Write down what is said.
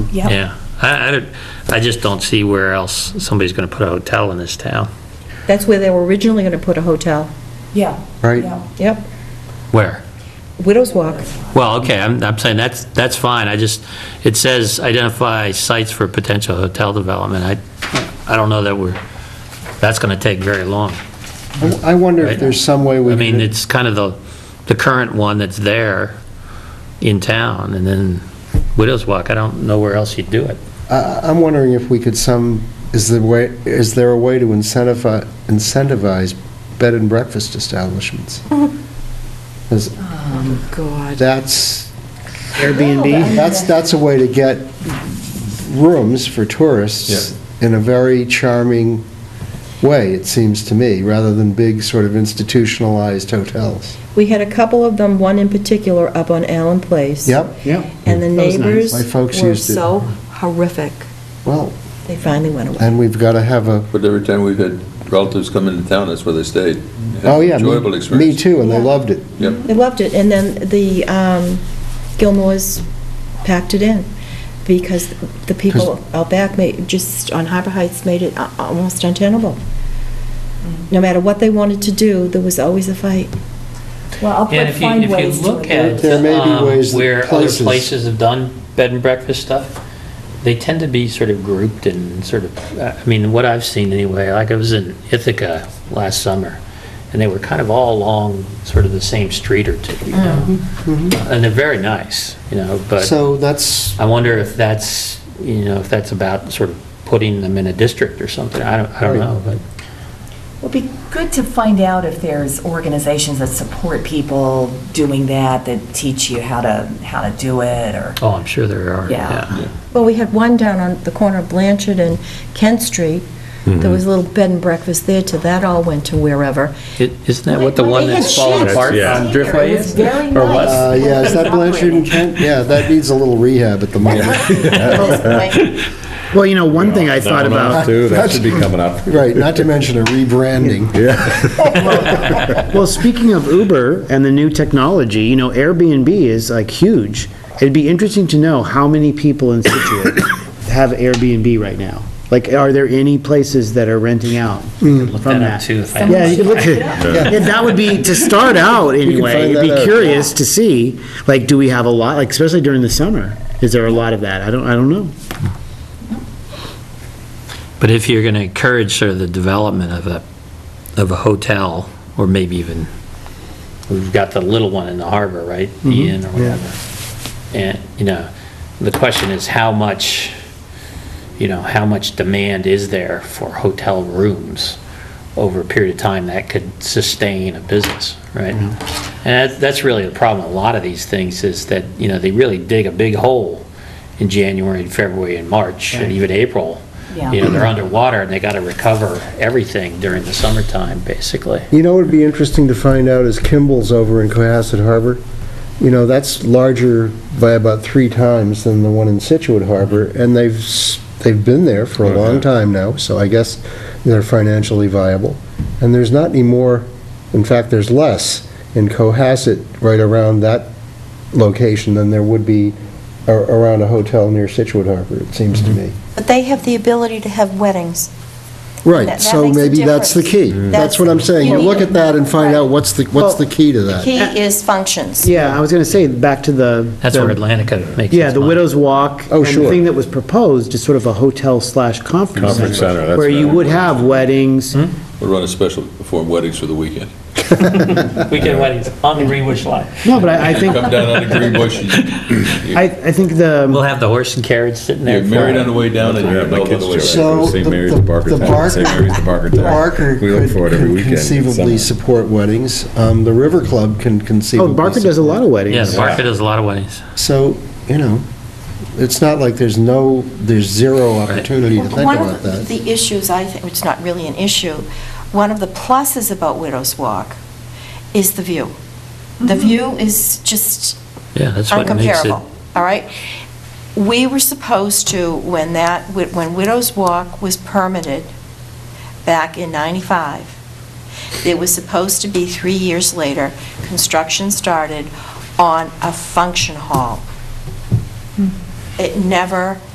Yep. Yeah, I, I, don't- I just don't see where else somebody's going to put a hotel in this town. That's where they were originally going to put a hotel. Yeah. Right. yeah. Yep, Where? Widows Walk. Well, okay, I'm, I'm saying that's, that's fine, I just, it says identify sites for potential hotel development, I, I don't know that we're, that's going to take very long. I- I wonder if there's some way we I could... mean, it's kind of the, the current one that's there in town, and then Widows Walk, I don't know where else you'd do it. I- I'm wondering if we could some, is there way, is there a way to incentivize, incentivize bed and breakfast establishments? 'Cause Oh, God. that's, Airbnb? that's, that's a way to get rooms for tourists in a very charming way, it seems to me, rather than big sort of institutionalized hotels. We had a couple of them, one in particular up on Allen Place. Yep, Yep. And the That was nice. neighbors My folks were used it. so horrific, well, they finally went away. and we've got to have a, But every time we've had relatives come into town, that's where they stayed. Had oh, yeah, Enjoyable me- me experience. too, and they Yeah. loved it. Yep. They loved it, and then the um, Gilmore's packed it in, because the people out back made, just on Harbor Heights made it a- almost untenable. No matter what they wanted to do, there was always a fight. Well, I'll And put- if you, find if ways you look to. at. There may be um, ways that Where other places- places have done bed and breakfast stuff, they tend to be sort of grouped and sort of, uh, I mean, what I've seen anyway, like I was in Ithaca last summer, and they were kind of all along sort of the same street or two, you know? Mm-hmm. And they're very nice, you know, but Mm-hmm. So that's, I wonder if that's, you know, if that's about sort of putting them in a district or something, I don't, I don't Right. know, but. It'd be good to find out if there's organizations that support people doing that, that teach you how to, how to do it, or, Oh, I'm sure there are, Yeah. yeah. Well, we had one down on the corner of Blanchard and Kent Street. There Mm-hmm. was a little bed and breakfast there, till that all went to wherever. It- Isn't that what the one They had that's fallen sheds apart in on there. Driftway It was is? very Or was? nice. uh, yeah, is that Blanchard Operating. and Kent? Yeah, that needs a little rehab at the moment. Well, you know, one thing I thought about, Too, that should be coming up. Right, not to mention a rebranding. well, speaking of Uber and the new technology, you know, Airbnb is like huge. It'd be interesting to know how many people in Situate have Airbnb right now. Like, are there any places that are renting out from Look that up, that? too, if I- Yeah, you could look at, yeah, that would be, to start out anyway, find it'd that be out. curious to see, like, do we have a lot, like, especially during the summer? Is there a lot of that? I don't, I don't know. But if you're going to encourage sort of the development of a, of a hotel, or maybe even, we've got the little one in the harbor, right? The inn or whatever. And, you know, the question is how much, you know, how much demand is there for hotel rooms over a period of time that could sustain a business, right? And that- that's really the problem, a lot of these things is that, you know, they really dig a big hole in January and February and March and even April. Yeah. You know, they're underwater and they got to recover everything during the summertime, basically. You know what would be interesting to find out is Kimball's over in Cohasset Harbor. You know, that's larger by about three times than the one in Situate Harbor, and they've, s- they've been there for a long time now, so I guess they're financially viable. And there's not any more, in fact, there's less in Cohasset right around that location than there would be a- around a hotel near Situate Harbor, it seems to me. But they have the ability to have weddings. Right, That- that so makes a maybe that's the difference. key. Mm. That's what I'm saying, you look at that and find out what's the, what's the key to The that. key is functions. Yeah, I was gonna say, back to the. That's where the- Atlantica makes its money. Yeah, the Widow's Walk. Oh, And sure. the thing that was proposed is sort of a hotel slash conference Conference center, center, that's where you better. would have weddings. We'll run a special, perform weddings for the weekend. Weekend weddings on the Greenwich Line. No, but I, I think, Come down on the green bush, I, I think We'll the, have the horse and carriage sitting there. you're married on the way down and Yeah, you're my involved on kids the do way it. back. So St. the- Mary's the- to Barker the Town, Barker- St. Mary's to Barker The Town. Barker We look could forward every could weekend in conceivably summer. support weddings, um, the River Club can conceivably. oh, Barker does a lot of Yeah, weddings. the market does a lot of weddings. support. So, you know, it's not like there's no, there's zero opportunity to think One about of that. the issues, I think, it's not really an issue, one of the pluses about Widow's Walk is the view. The view is just Yeah, that's what makes it. uncomparable, all right? We were supposed to, when that, when Widow's Walk was permitted back in 95, it was supposed to be, three years later, construction started on a function hall. It never